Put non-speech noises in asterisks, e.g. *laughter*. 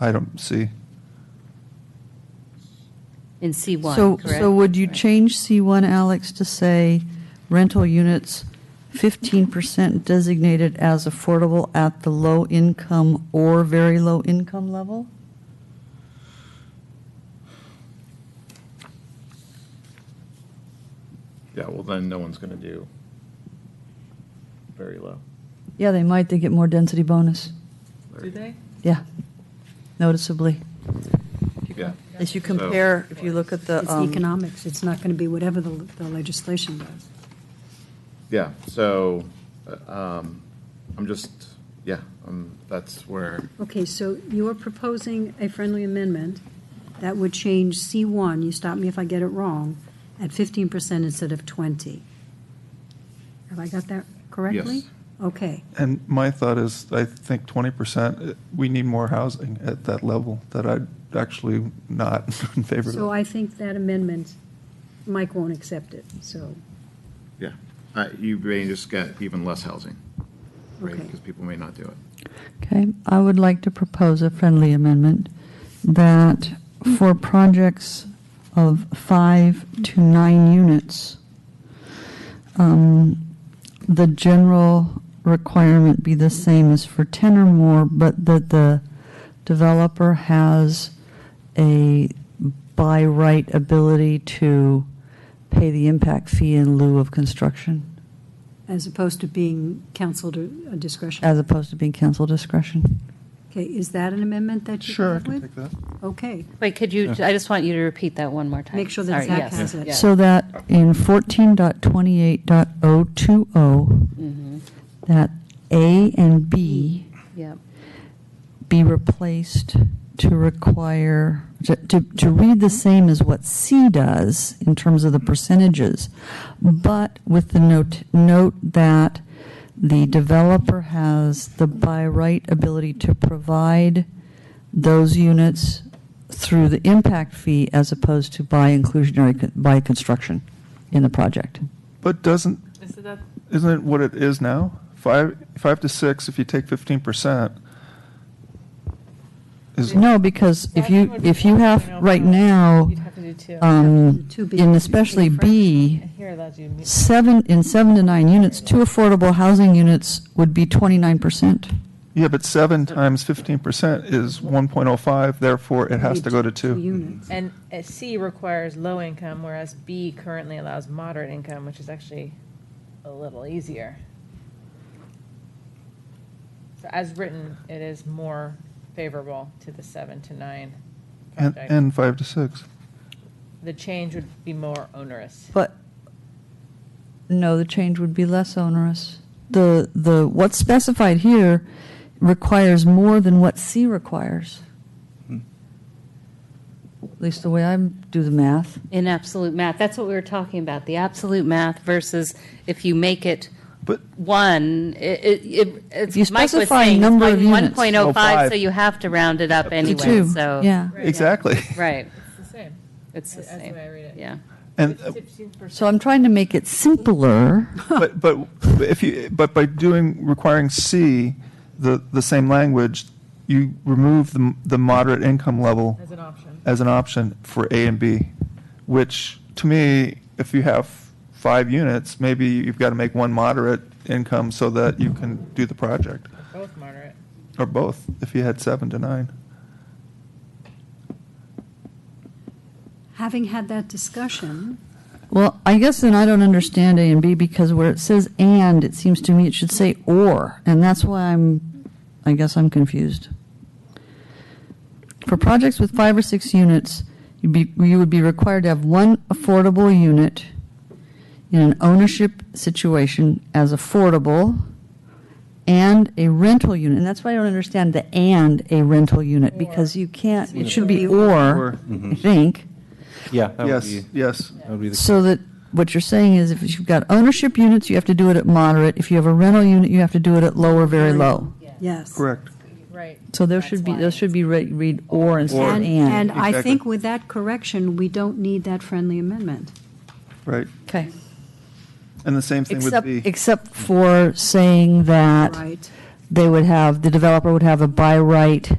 item C. in C1, So, correct? so would you Right. change C1, Alex, to say rental units 15% designated as affordable at the low income or very low income level? Yeah, well, then no one's gonna do very low. Yeah, they might, they get more density bonus. Do they? Yeah, noticeably. Yeah. As you So- compare, if you look at the, It's um, economics, it's not going to be whatever the the legislation does. Yeah, so, uh, um, I'm just, yeah, um, that's where, Okay, so you are proposing a friendly amendment that would change C1, you stop me if I get it wrong, at 15% instead of 20. Have I got that correctly? Yes. Okay, And my thought is, I think 20%, uh, we need more housing at that level that I'd actually not *laughs* in favor so of. I think that amendment, Mike won't accept it, so, yeah, uh, you may just get even less housing, right? Okay. Because people may not do it. okay, I would like to propose a friendly amendment that for projects of five to nine units, um, the general requirement be the same as for 10 or more, but that the developer has a by right ability to pay the impact fee in lieu of construction. as opposed to being council discretion. as opposed to being council discretion. Okay, is that an amendment that you Sure, I have can with? take that. Okay, Wait, could you, I just want you to repeat that one more time. Make sure that Sorry, Zach yes, has it. yes. So that in 14.28.020, that A and B Yep. be replaced to require, to, to to read the same as what C does in terms of the percentages, but with the note, note that the developer has the by right ability to provide those units through the impact fee as opposed to by inclusionary, con- by construction in the project. But doesn't, Is it that, isn't it what it is now? Five, five to six, if you take 15%, is, No, because if you, if you have, right now, you'd have to do two. um, Two B. in especially B, And here allows you, to meet- seven, in seven to nine units, two affordable housing units would be twenty-nine percent. yeah, but seven times 15% is 1.05, therefore it has to go to two. units. and uh, C requires low income, whereas B currently allows moderate income, which is actually a little easier. So as written, it is more favorable to the seven to nine And, project. and five to six. The change would be more onerous. But, no, the change would be less onerous. The, the, what's specified here requires more than what C requires. At least the way I do the math. In absolute math, that's what we were talking about, the absolute math versus if you make it But one, it, it- it, If you it's, Mike was specify saying, it's number of like units. 1.05, so 05. you have to round it up To anyway, two, so. Yeah, Exactly. Right, It's the same. it's the That's the same, way I read it. yeah. And, uh, so I'm trying to make it simpler. But, but if you, but by doing, requiring C, the, the same language, you remove the, the moderate income level As an option. as an option for A and B, which to me, if you have five units, maybe you've got to make one moderate income so that you can do the project, Both moderate. or both, if you had seven to nine. Having had that discussion, Well, I guess then I don't understand A and B because where it says and, it seems to me it should say or, and that's why I'm, I guess I'm confused. For projects with five or six units, you'd be, you would be required to have one affordable unit in an ownership situation as affordable and a rental unit. And that's why I don't understand the and a rental unit because you can't, it should be or, I think. Yeah. that would Yes, be- yes. That would be the. So that, what you're saying is if you've got ownership units, you have to do it at moderate. If you have a rental unit, you have to do it at low or very low. yes. Correct. Right. So there should be, there should be re- read or instead of And, and and. I Exactly. think with that correction, we don't need that friendly amendment. Right. Okay. And the same thing with Except, B. except for saying that Right. they would have, the developer would have a by right